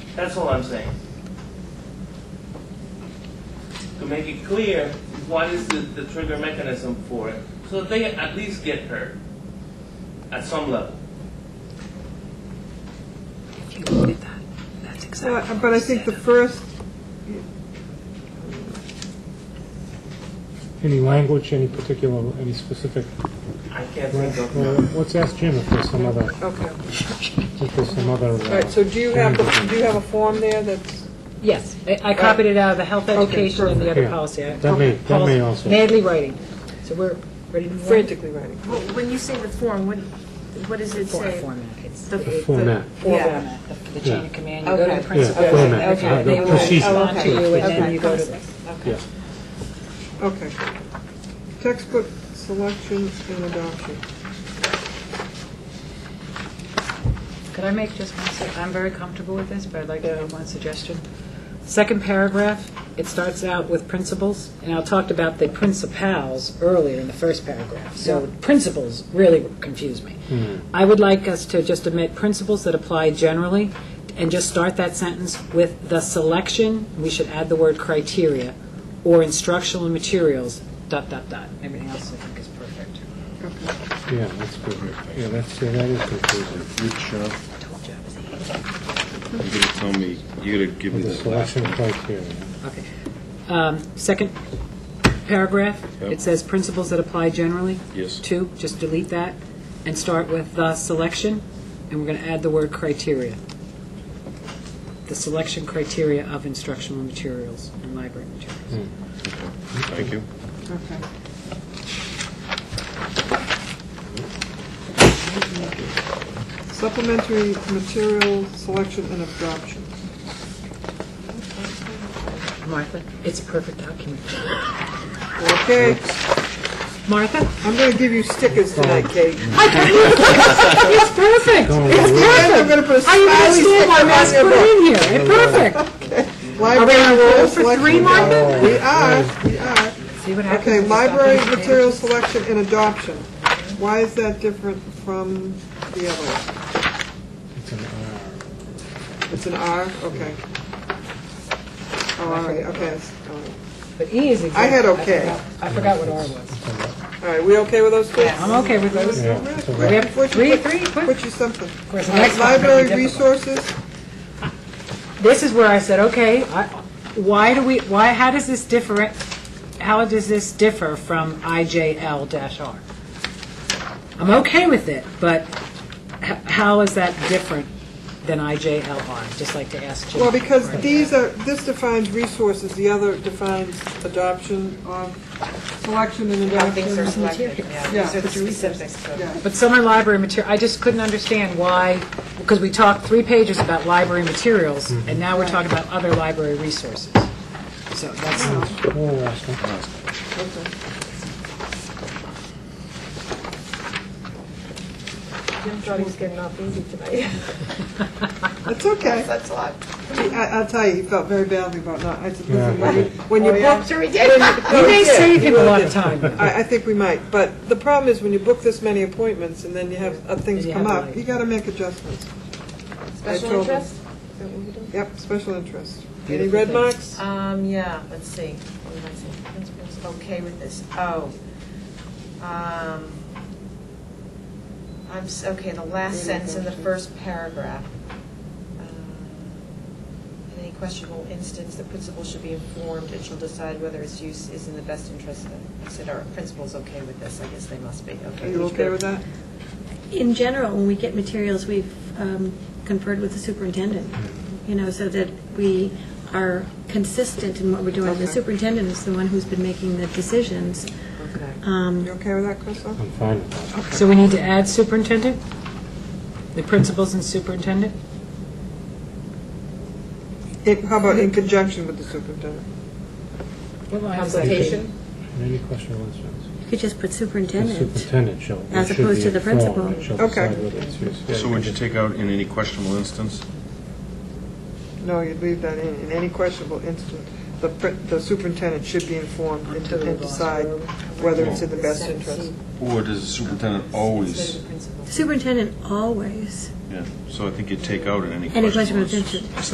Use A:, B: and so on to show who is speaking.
A: That's all I'm saying. To make it clear, what is the, the trigger mechanism for it, so that they at least get hurt at some level.
B: If you look at that, that's
C: So,
B: exactly.
C: uh, but I think the first,
D: Any language, any particular, any specific,
A: I can't think of.
D: well, let's ask Jim if there's some other,
C: okay.
D: if there's some other. uh,
C: All right, so do you have, the- do you have a form there that's,
B: Yes, I I copied it out of the health education and the other
D: Yeah.
B: policy. I-
D: That may- that may also-
B: Madly writing. So we're ready to move on?
C: frantically writing?
E: Well, When you say the form, what, what does it
B: For-
E: say?
B: Format. It's
E: The-
B: the
D: The format.
B: format, the- the chain
D: Yeah.
B: of command. You go to
C: Okay.
B: the principal.
D: Yeah, format.
B: okay,
D: Yeah, the
B: they will
D: procedure.
B: respond to you, and then
E: Okay.
B: you go to the
D: Yeah.
C: Okay. Textbook selection and adoption.
B: Could I make just one sec, I'm very comfortable with this, but I'd like to
C: Yeah.
B: make one suggestion. Second paragraph, it starts out with principles, and I talked about the principals earlier in the first paragraph, so principles really confuse me. I would like us to just omit principles that apply generally, and just start that sentence with the selection, we should add the word criteria, or instructional materials, dot, dot, dot. Everything else I think is perfect.
D: Yeah, that's good. Yeah, that's, yeah, that is confusing.
F: Which, uh, you're gonna tell me, you're gonna give me
D: The
F: the last
D: selection
F: one.
D: criteria.
B: Okay. Um, Second paragraph,
F: Yep.
B: it says principles that apply generally.
F: Yes.
B: Two, just delete that and start with the selection, and we're going to add the word criteria. The selection criteria of instructional materials and library materials.
F: Thank you.
C: Okay. Supplementary material selection and adoption.
B: Martha, it's a perfect document.
C: Okay,
B: Martha?
C: I'm gonna give you stickers tonight, Kate.
B: Oh, It's perfect.
D: Don't
B: It's
D: worry.
B: perfect.
C: I'm gonna put a
B: I
C: smiley
B: understand why
C: sticker
B: Matt's
C: on
B: put
C: your book.
B: it in here. It's perfect.
C: Library
B: Are we on a roll
C: material
B: for three,
C: selection.
B: Martha?
C: We are, we are.
B: See what happens.
C: Okay,
B: if it's
C: library
B: documented.
C: material selection and adoption. Why is that different from the other? one?
D: It's an R.
C: It's an R, okay. Oh, all right, okay. it's- all right.
B: But E is exactly.
C: had okay.
B: I forgot- I forgot what R was.
C: All right, we okay with those two?
B: I'm okay with those.
D: Yeah, it's a
B: We
D: wrap.
B: have three, three, quick.
C: Put you something.
B: course, the
C: Uh,
B: next one may be
C: Library
B: difficult.
C: resources,
B: This is where I said, okay, I- why do we, why, how does this differ, how does this differ from IJL-R? I'm okay with it, but h- how is that different than IJLR? Just like to ask Jim.
C: well, because
B: Right.
C: these are, this defines resources, the other defines adoption of, selection and
E: How
C: adoption.
E: things are selected, yeah.
C: Yeah.
E: So it's specific, so-
C: Yeah.
B: But summer library material, I just couldn't understand why, because we talked three pages about library materials, and now we're talking about other library resources. So that's,
D: Oh, last one.
E: Jim thought he was getting off easy tonight.
C: It's okay.
E: That's a lot.
C: He- I- I'll tell you, he felt very badly about not, I said, listen,
D: Yeah.
C: when you, when you
E: I'm
C: book,
E: sure he did.
B: Oh, you may save him a lot of time.
C: I, I think we might, but the problem is when you book this many appointments and then you have, uh, things
B: And you
C: come
B: have
C: up,
B: like-
C: you gotta make adjustments. I
E: Special
C: told him.
E: interest? Is that what we do?
C: Yep, special interest. Any
B: Beautiful
C: red
B: things.
C: marks?
E: Um, yeah, let's see. What did I say? Principals okay with this. Oh. Um, I'm, s- okay, the last sentence in the first paragraph. Uh, In any questionable instance, the principal should be informed and shall decide whether its use is in the best interest of, I said, our principal's okay with this. I guess they must be, okay.
C: Are you okay with that?
G: In general, when we get materials, we've um, conferred with the superintendent, you know, so that we are consistent in what we're doing. The
C: Okay.
G: superintendent is the one who's been making the decisions.
C: Okay.
G: Um,
C: You okay with that, Crystal?
D: I'm fine with that.
B: So we need to add superintendent? The principals and superintendent?
C: In- How about in conjunction with the superintendent?
E: Consultation?
D: Any question or concerns?
G: You could just put
D: The
G: superintendent.
D: superintendent shall.
G: As
D: should
G: opposed
D: be
G: to the
D: informed
G: principal.
D: and shall
C: Okay.
D: decide whether it's used. Yeah,
F: So would you take out in any questionable instance?
C: No, you'd leave that in, in any questionable instance, the, pr- the superintendent should be informed and de- and decide whether it's in the best interest.
F: Or does the superintendent
E: Instead
F: always?
E: of the principal.
G: Superintendent always,
F: Yeah. So I think you'd take out in any questionable
G: any question of
F: instance.
G: attention.